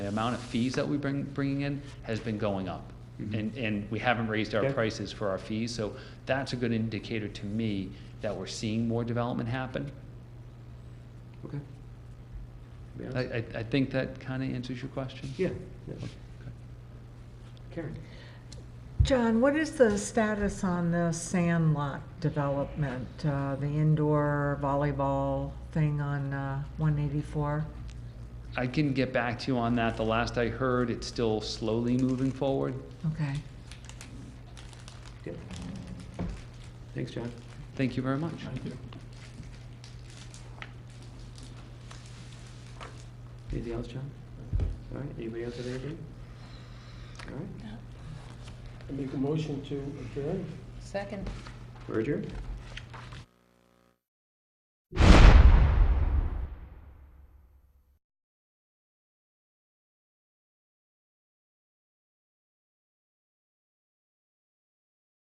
amount of fees that we bring, bringing in has been going up. And, and we haven't raised our Okay. prices for our fees, so that's a good indicator to me that we're seeing more development happen. Okay. I, I, I think that kinda answers your question. Yeah. yeah. Karen? John, what is the status on the sand lot development, uh, the indoor volleyball thing on uh, 184? I can get back to you on that. The last I heard, it's still slowly moving forward. Okay. Yeah. Thanks, John. Thank you very much. Anything else, John? All right, anybody else have anything? All right, I make a motion to adjourn. Second. we're adjourned.